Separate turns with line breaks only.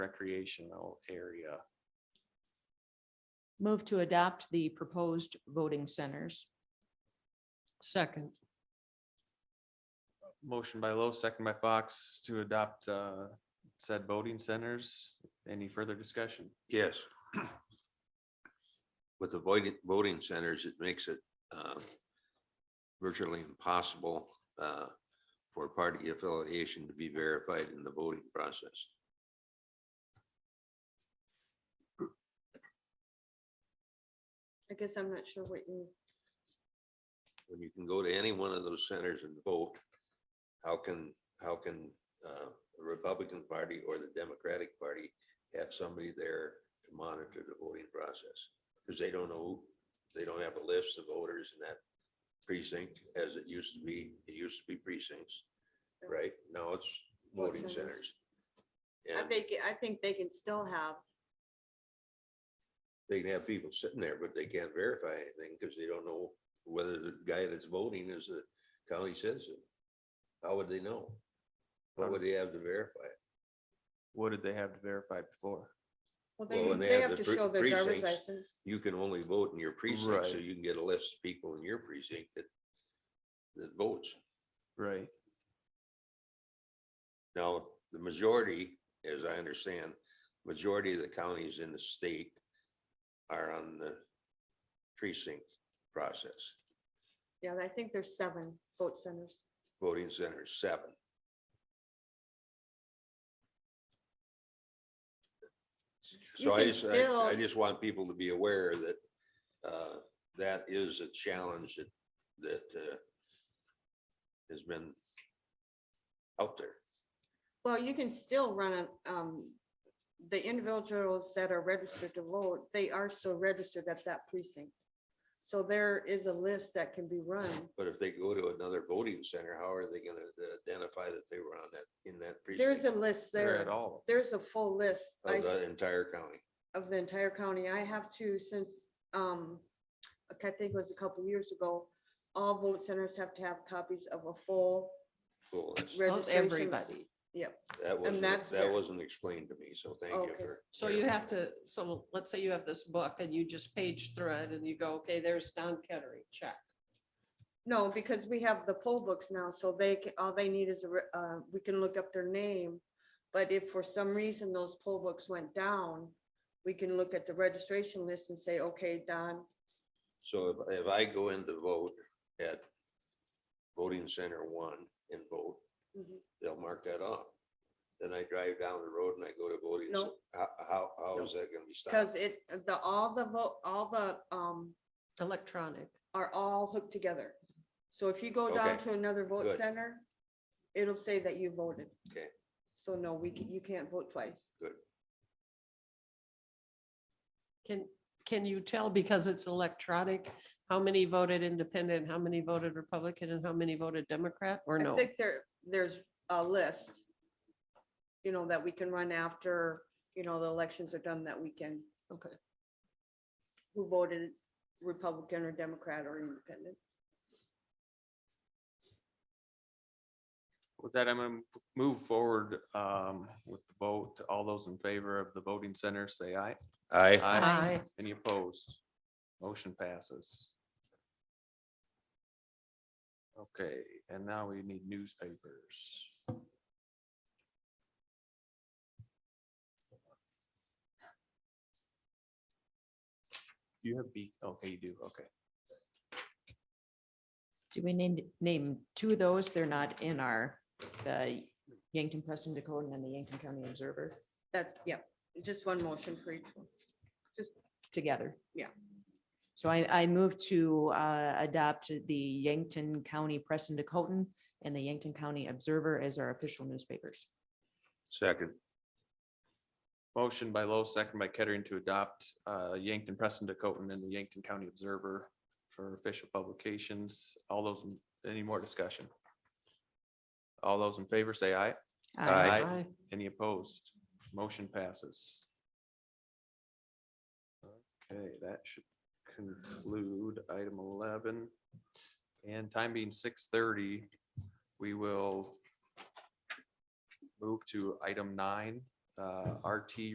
recreational area.
Move to adopt the proposed voting centers.
Second,
Motion by Low, second by Fox to adopt uh, said voting centers. Any further discussion?
Yes. With the voting, voting centers, it makes it uh, virtually impossible uh, for party affiliation to be verified in the voting process.
I guess I'm not sure what you,
When you can go to any one of those centers and vote, how can, how can uh, the Republican Party or the Democratic Party have somebody there to monitor the voting process? Because they don't know, they don't have a list of voters in that precinct as it used to be. It used to be precincts. Right, now it's
Vote
voting centers.
centers. I
And
think, I think they can still have,
they can have people sitting there, but they can't verify anything because they don't know whether the guy that's voting is a county citizen. How would they know? What would they have to verify?
What did they have to verify before?
Well,
well, they,
when they
they
have
have
the
to
pre-
show their driver's
precincts,
license.
You can only vote in your precinct, so
Right.
you can get a list of people in your precinct that, that votes.
Right.
Now, the majority, as I understand, majority of the counties in the state are on the precinct process,
Yeah, I think there's seven vote centers.
voting centers, seven.
You
So I
can
just, I- I
still-
just want people to be aware that uh, that is a challenge that, that uh, has been out there.
Well, you can still run a, um, the individuals that are registered to vote, they are still registered at that precinct. So there is a list that can be run.
But if they go to another voting center, how are they gonna uh, identify that they were on that, in that
There's
precinct?
a list
They're at
there.
all. Oh,
There's a full list. I
Of
s-
the entire county.
of the entire county. I have to since, um, I think it was a couple years ago, all vote centers have to have copies of a full
Cool, that's-
of
registration. list.
everybody.
Yep,
That wasn't,
that's
that
fair.
wasn't explained to me, so thank you
Okay.
for.
So you have to, so let's say you have this book and you just page through it and you go, okay, there's Don Kettery, check.
no, because we have the poll books now, so they, ca- all they need is, a re- uh, we can look up their name. But if for some reason those poll books went down, we can look at the registration list and say, okay, Don,
So if, if I go in to vote at voting center one and vote,
Mhm.
they'll mark that off. Then I drive down the road and I go to voting.
No.
cen- How, how, how is that gonna be stopped?
cause it, the, all the vote, all the, um,
Electronic.
are all hooked together. So if you go down
Okay,
to another vote
good.
center, it'll say that you voted.
Okay.
So no, we can, you can't vote twice.
Can, can you tell because it's electronic, how many voted independent, how many voted Republican and how many voted Democrat or
I
no?
think there, there's a list, you know, that we can run after, you know, the elections are done that weekend.
Okay.
Who voted Republican or Democrat or Independent.
With that, I'm gonna move forward um, with the vote. All those in favor of the voting center, say aye.
I,
Aye.
Any opposed? Motion passes. Okay, and now we need newspapers. Do You have B, okay, you do, okay.
Do we need, name two of those? They're not in our, the Yankton Press and Dakota and the Yankton County Observer
That's, yeah, just one motion for each one.
together.
Yeah.
So I, I move to uh, adopt the Yankton County Press and Dakota and the Yankton County Observer as our official newspapers.
second,
Motion by Lowe, second by Kettering to adopt uh, Yankton Preston Dakotan and the Yankton County Observer for official publications. All those, any more discussion? All those in favor say aye.
Aye.
Aye.
Any opposed? Motion passes. Okay, that should conclude item eleven. And time being six thirty, we will move to item nine, uh, RT